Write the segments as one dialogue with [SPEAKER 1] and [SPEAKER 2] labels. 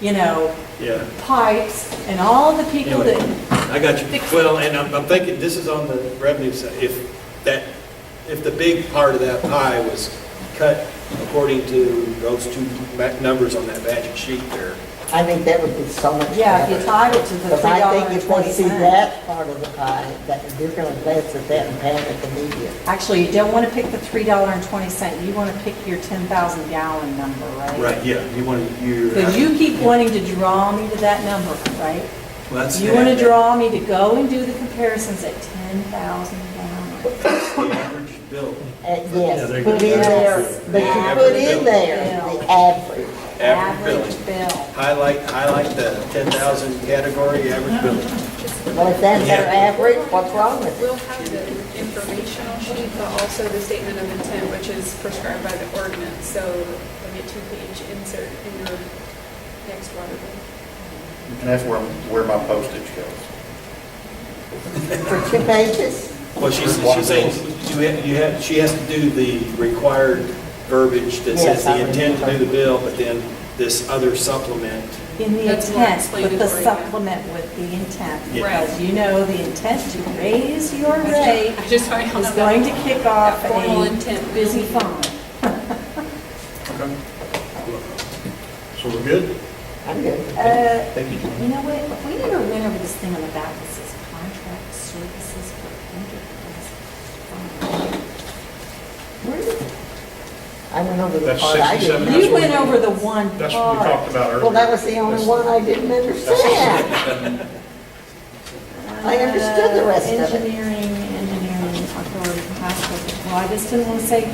[SPEAKER 1] you know,
[SPEAKER 2] Yeah,
[SPEAKER 1] pipes and all the people
[SPEAKER 2] anyway,
[SPEAKER 1] that,
[SPEAKER 2] I got you.
[SPEAKER 1] Fix it.
[SPEAKER 2] Well, and I'm, I'm thinking, this is on the revenue side, if that, if the big part of that pie was cut according to those two ma- numbers on that magic sheet there.
[SPEAKER 3] I think that would be so much
[SPEAKER 1] yeah, if you
[SPEAKER 3] better.
[SPEAKER 1] tied it to the
[SPEAKER 3] Because
[SPEAKER 1] three
[SPEAKER 3] I
[SPEAKER 1] dollar
[SPEAKER 3] think
[SPEAKER 1] and
[SPEAKER 3] if they
[SPEAKER 1] twenty
[SPEAKER 3] see
[SPEAKER 1] cents.
[SPEAKER 3] that part of the pie, that they're gonna glance at that and panic immediately. Uh,
[SPEAKER 1] Actually, you don't want to pick the three dollar and twenty cent, you want to pick your ten thousand gallon number, right?
[SPEAKER 2] Right, yeah, you want to, you. uh,
[SPEAKER 1] Because you keep wanting to draw me to that number, right?
[SPEAKER 2] Well, that's-
[SPEAKER 1] You want to draw me to go and do the comparisons at ten thousand gallon.
[SPEAKER 2] The average bill,
[SPEAKER 3] And
[SPEAKER 2] Yeah,
[SPEAKER 3] yes,
[SPEAKER 2] they're
[SPEAKER 3] put
[SPEAKER 2] gonna
[SPEAKER 3] in there,
[SPEAKER 2] average it.
[SPEAKER 3] but
[SPEAKER 1] Yeah.
[SPEAKER 3] you put in there
[SPEAKER 1] Yeah.
[SPEAKER 3] the average.
[SPEAKER 2] average
[SPEAKER 1] Average
[SPEAKER 2] bill.
[SPEAKER 1] bill.
[SPEAKER 2] Highlight, highlight the ten thousand category, average bill.
[SPEAKER 3] Well, if that's their
[SPEAKER 2] Yeah.
[SPEAKER 3] average, what's wrong with it?
[SPEAKER 4] We'll have the informational sheet, but also the statement of intent, which is prescribed by the ordinance, so like a two-page insert in your next water bill.
[SPEAKER 5] And that's where, where my postage goes.
[SPEAKER 3] For two pages?
[SPEAKER 2] Well, she's, she's saying, you have, you have, she has to do the required verbiage that says
[SPEAKER 3] Yes, I
[SPEAKER 2] the intent to do
[SPEAKER 3] remember.
[SPEAKER 2] the bill, but then this other supplement
[SPEAKER 1] In the
[SPEAKER 4] That's more
[SPEAKER 1] intent, with the
[SPEAKER 4] explanatory, yeah.
[SPEAKER 1] supplement with the intent.
[SPEAKER 2] Yeah.
[SPEAKER 1] Because you know the intent to raise your rate
[SPEAKER 4] I just want y'all
[SPEAKER 1] is
[SPEAKER 4] to know
[SPEAKER 1] going to kick off
[SPEAKER 4] that formal
[SPEAKER 1] a Uh,
[SPEAKER 4] intent.
[SPEAKER 1] busy phone.
[SPEAKER 6] So we're good?
[SPEAKER 3] I'm good.
[SPEAKER 1] Uh,
[SPEAKER 6] Thank you.
[SPEAKER 1] You know what, if we never went over this thing on the back that says contract services for enterprise.
[SPEAKER 3] Where is it? I went over the
[SPEAKER 6] That's
[SPEAKER 3] part I
[SPEAKER 6] 67.
[SPEAKER 3] didn't.
[SPEAKER 6] That's
[SPEAKER 1] You
[SPEAKER 6] what
[SPEAKER 1] went
[SPEAKER 6] we-
[SPEAKER 1] over the one
[SPEAKER 6] That's what we talked
[SPEAKER 1] part.
[SPEAKER 6] about earlier.
[SPEAKER 3] Well, that was the only
[SPEAKER 6] That's-
[SPEAKER 3] one I didn't understand. I understood the rest of it.
[SPEAKER 1] Uh, Engineering, engineering, authority, contract. well, I just didn't want to say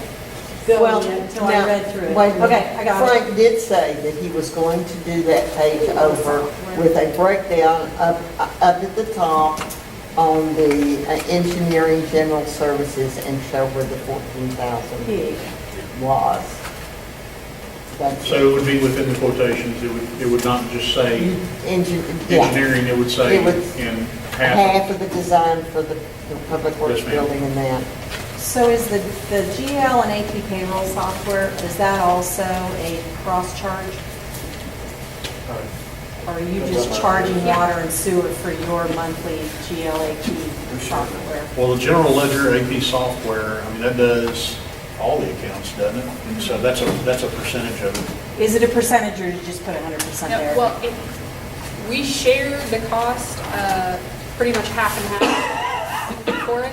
[SPEAKER 1] go
[SPEAKER 3] Well,
[SPEAKER 1] yet until
[SPEAKER 3] now,
[SPEAKER 1] I read through it.
[SPEAKER 3] wait a minute.
[SPEAKER 1] Okay, I got it.
[SPEAKER 3] Frank did say that he was going to do that page over with a breakdown up, up at the top on the uh, engineering general services and show where the fourteen thousand
[SPEAKER 1] Here you go.
[SPEAKER 3] was. That's
[SPEAKER 6] So it would be within the quotations, it would, it would not just say
[SPEAKER 3] Engi- yeah,
[SPEAKER 6] engineering, it would say
[SPEAKER 3] It would-
[SPEAKER 6] in half.
[SPEAKER 3] half of the design for the, the public works
[SPEAKER 6] Yes, ma'am.
[SPEAKER 3] building and that.
[SPEAKER 1] So is the, the GL and AP payroll software, is that also a cross-charge? Or are you just charging water and sewer for your monthly GLAP software?
[SPEAKER 6] Well, the general ledger AP software, I mean, that does all the accounts, doesn't it?
[SPEAKER 3] Mm-hmm.
[SPEAKER 6] And so that's a, that's a percentage of it.
[SPEAKER 1] Is it a percentage or did you just put hundred percent
[SPEAKER 4] No,
[SPEAKER 1] there?
[SPEAKER 4] Well, it- we share the cost, uh, pretty much half and half for it.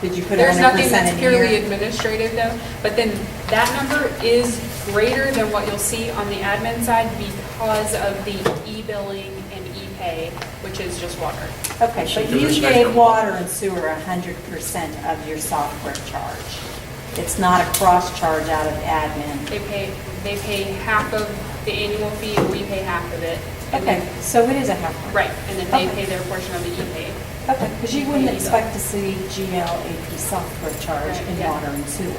[SPEAKER 1] Did you put
[SPEAKER 4] There's
[SPEAKER 1] hundred
[SPEAKER 4] nothing
[SPEAKER 1] percent
[SPEAKER 4] that's
[SPEAKER 1] in
[SPEAKER 4] purely
[SPEAKER 1] here?
[SPEAKER 4] administrative though, but then that number is greater than what you'll see on the admin side because of the e-billing and e-pay, which is just water.
[SPEAKER 1] Okay,
[SPEAKER 6] So
[SPEAKER 1] but
[SPEAKER 6] do
[SPEAKER 1] you
[SPEAKER 6] this
[SPEAKER 1] gave
[SPEAKER 6] next one.
[SPEAKER 1] water and sewer hundred percent of your software charge. It's not a cross-charge out of admin.
[SPEAKER 4] They pay, they pay half of the annual fee and we pay half of it. And
[SPEAKER 1] Okay,
[SPEAKER 4] then-
[SPEAKER 1] so it is a half.
[SPEAKER 4] Right, and then they
[SPEAKER 1] Okay.
[SPEAKER 4] pay their portion of the e-pay.
[SPEAKER 1] Okay, because you wouldn't expect to see GL AP software charge
[SPEAKER 4] Right,
[SPEAKER 1] in
[SPEAKER 4] yeah.
[SPEAKER 1] water and sewer.
[SPEAKER 4] You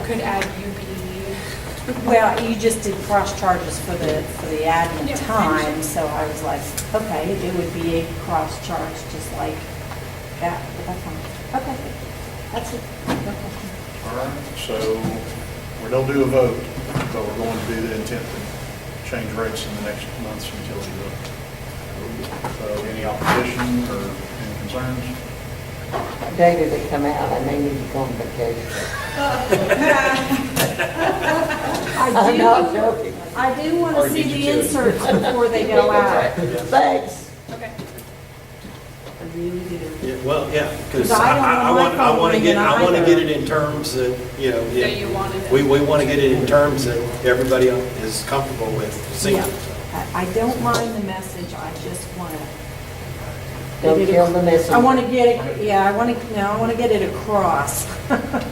[SPEAKER 1] So-
[SPEAKER 4] could add E. UB.
[SPEAKER 1] Well, you just did cross charges for the, for the
[SPEAKER 4] Yeah,
[SPEAKER 1] admin
[SPEAKER 4] I
[SPEAKER 1] time,
[SPEAKER 4] understand.
[SPEAKER 1] so I was like, okay, it would be a cross charge, just like that, but that's fine. Okay, that's it.
[SPEAKER 6] All right, so we don't do a vote, but we're going to do the intent to change rates in the next month's utility bill. So any opposition or any concerns?
[SPEAKER 3] Data that come out, I may need to go on vacation.
[SPEAKER 1] I
[SPEAKER 3] I'm not
[SPEAKER 1] do,
[SPEAKER 3] joking.
[SPEAKER 1] I do want
[SPEAKER 2] Or
[SPEAKER 1] to see
[SPEAKER 2] did you
[SPEAKER 1] the
[SPEAKER 2] do it?
[SPEAKER 1] inserts before they go out.
[SPEAKER 3] Thanks.
[SPEAKER 4] Okay.
[SPEAKER 1] I really do.
[SPEAKER 2] Yeah, well, yeah, because
[SPEAKER 1] So I don't
[SPEAKER 2] I, I
[SPEAKER 1] want
[SPEAKER 2] want,
[SPEAKER 1] my
[SPEAKER 2] I want to
[SPEAKER 1] phone
[SPEAKER 2] get, I want to
[SPEAKER 1] ringing
[SPEAKER 2] get it in terms that, you know,
[SPEAKER 4] That you wanted it.
[SPEAKER 2] we, we want to get it in terms that everybody is comfortable with seeing.
[SPEAKER 1] Yeah, I, I don't mind the message, I just want to.
[SPEAKER 3] Don't kill the messenger.
[SPEAKER 1] I want to get it, yeah, I want to, no, I want to get it across.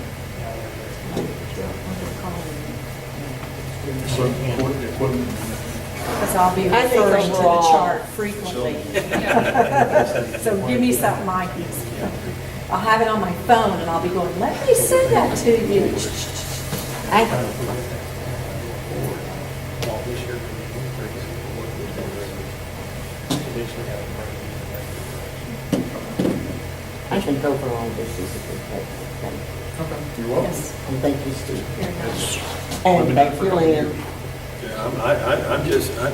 [SPEAKER 6] Equipment, equipment,
[SPEAKER 1] Because I'll be
[SPEAKER 3] I think
[SPEAKER 1] referring to the
[SPEAKER 3] overall-
[SPEAKER 1] chart frequently.
[SPEAKER 4] Yeah.
[SPEAKER 1] So give me something I can, I'll have it on my phone and I'll be going, let me send that to you.
[SPEAKER 3] I- I think overall, this is a good thing.
[SPEAKER 6] You're welcome.
[SPEAKER 1] Yes,
[SPEAKER 3] And thank you, Steve.
[SPEAKER 1] very much.
[SPEAKER 6] It's-
[SPEAKER 3] And thank you, Lynn.
[SPEAKER 7] Yeah, I'm, I, I- I'm just, i